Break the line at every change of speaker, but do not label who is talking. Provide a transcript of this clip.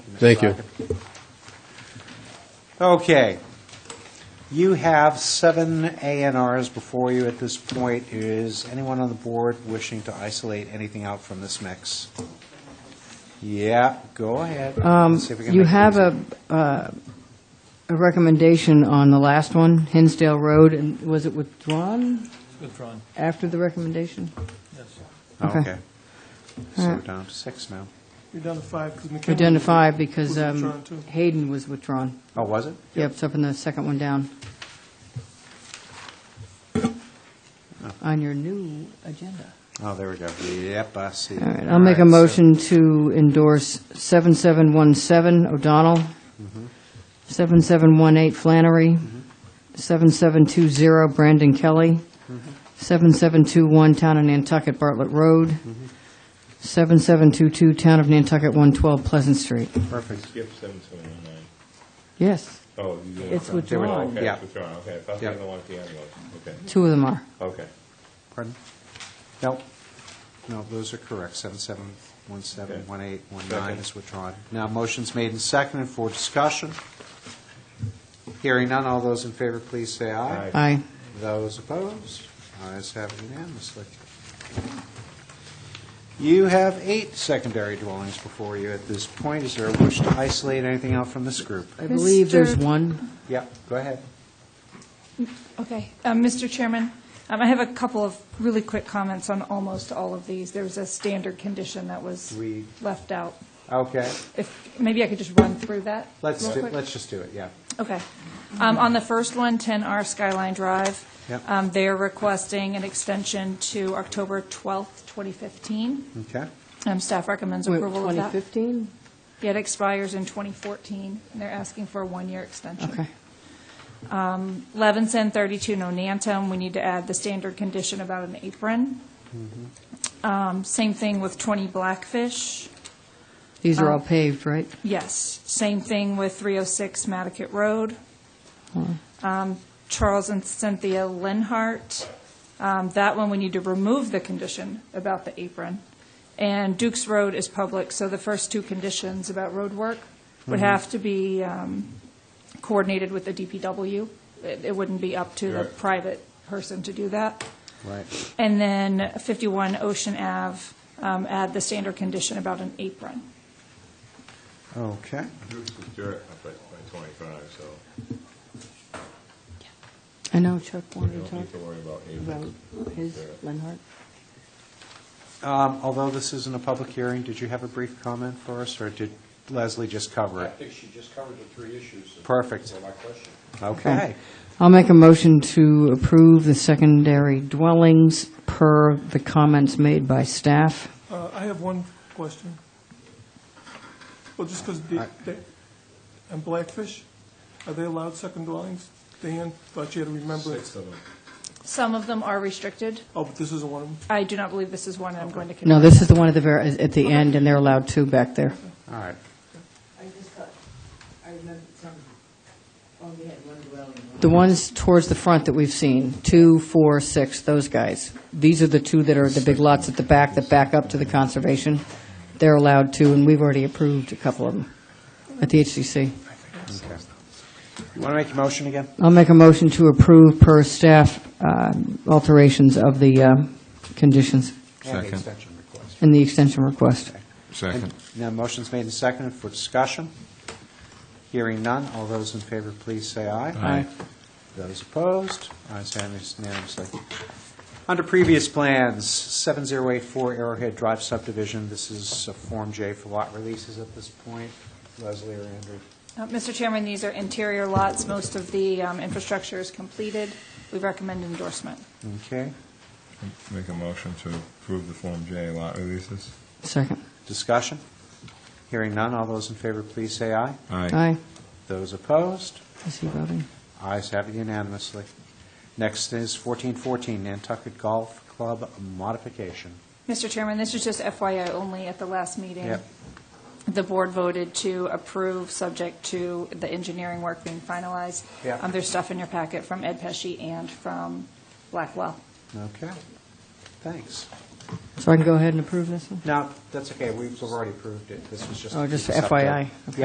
Thank you.
Okay. You have seven A and Rs before you at this point. Is anyone on the board wishing to isolate anything out from this mix? Yeah, go ahead.
Um,
Let's see if we can
You
make it
have
easy.
a, uh, a recommendation on the last one, Hinsdale Road, and was it withdrawn
Withdrawn,
after the recommendation?
yes.
Oh,
okay.
Okay. So
All
we're
right.
down to six now.
You're down to five, because McKenna.
We're down to five because
Was
um,
withdrawn, too.
Hayden was withdrawn.
Oh, was it?
Yep, it's up in the second one down. On your new agenda.
Oh, there we go. Yep, I see.
All right, I'll make a
so-
motion to endorse 7717 O'Donnell, 7718 Flannery, 7720 Brandon Kelly, 7721 Town of Nantucket Bartlett Road, 7722 Town of Nantucket 112 Pleasant Street.
Perfect.
Skip seven seven one nine.
Yes,
Oh, you doing
It's
it from-
withdrawn.
Okay,
Yeah.
it's withdrawn, okay. I thought they
Yeah.
didn't want the other one. Okay,
two of them are.
okay.
Pardon? No, no, those are correct, Seven, seven, one, seven, one, eight, one, nine
Second.
is withdrawn. Now, motion's made and seconded for discussion. Hearing none, all those in favor, please say aye.
Aye.
Aye.
Those opposed, ayes have it unanimously. You have eight secondary dwellings before you at this point. Is there a wish to isolate anything out from this group?
I believe there's
Mr.
one.
Yeah, go ahead.
Okay, Um, Mr. Chairman, um, I have a couple of really quick comments on almost all of these. There's a standard condition that was
We-
left out.
Okay,
If, maybe I could just run through that
let's,
real
do-
quick?
let's just do it, yeah.
Okay. Um, On the first one, 10R Skyline Drive,
Yep.
um, they're requesting an extension to October 12th, 2015.
Okay,
Um, Staff recommends
Wait,
approval of that.
2015?
It expires in 2014, and they're asking for a one-year extension.
Okay.
Levinson, 32 Nonantum, we need to add the standard condition about an apron. Um, Same thing with 20 Blackfish.
These are all paved, right?
Yes, same thing with 306 Matticat Road. Um, Charles and Cynthia Lenhart, um, that one, we need to remove the condition about the apron. And Duke's Road is public, so the first two conditions about road work would have to be um, coordinated with the DPW. It it wouldn't be up to the
Right.
private person to do that.
right.
And then 51 Ocean Ave, um, add the standard condition about an apron.
Okay.
Bruce was dirt up at by twenty-five, so
I know Chuck
we
wanted to
don't
talk
need to worry about
about
Abrams.
his, Lenhart.
Um, Although this isn't a public hearing, did you have a brief comment for us, or did Leslie just cover
I
it?
think she just covered the three issues. that
Perfect.
were my question.
Okay.
I'll make a motion to approve the secondary dwellings per the comments made by staff.
Uh, I have one question. Well, just because
I-
they, and Blackfish, are they allowed second dwellings? Dan, thought you had to remember.
Six of them.
Some of them are restricted.
Oh, but this isn't one of them.
I do not believe this is one I'm going to.
No,
condemn.
this is the one at the very, at the end, and they're allowed two back there.
All right.
I just thought, I remembered some, only had one dwelling.
The ones towards the front that we've seen, two, four, six, those guys. These are the two that are the big lots at the back that back up to the conservation. They're allowed two, and we've already approved a couple of them at the
Okay.
HCC.
You want to make your motion again?
I'll make a motion to approve per staff um, alterations of the um, conditions
And the
Second.
extension request.
and the extension request.
Second.
Now, motion's made and seconded for discussion. Hearing none, all those in favor, please say aye.
Aye.
Those opposed, ayes have it unanimously. Under previous plans, 7084 Arrowhead Drive subdivision, this is a Form J for lot releases at this point. Leslie or Andrew?
Uh, Mr. Chairman, these are interior lots. Most of the um, infrastructure is completed. We recommend endorsement.
Okay.
Make a motion to approve the Form J lot releases.
Second.
Discussion? Hearing none, all those in favor, please say aye.
Aye.
Those opposed,
Is he voting?
ayes have it unanimously. Next is 1414 Nantucket Golf Club modification.
Mr. Chairman, this is just FYI only at the last meeting.
Yep.
The board voted to approve, subject to the engineering work being finalized.
Yep.
Um, There's stuff in your packet from Ed Pesci and from Blackwell.
Okay, thanks.
So I can go ahead and approve this one?
Now, that's okay, we've already approved it, this was just.
Oh, just
it's up to-
FYI.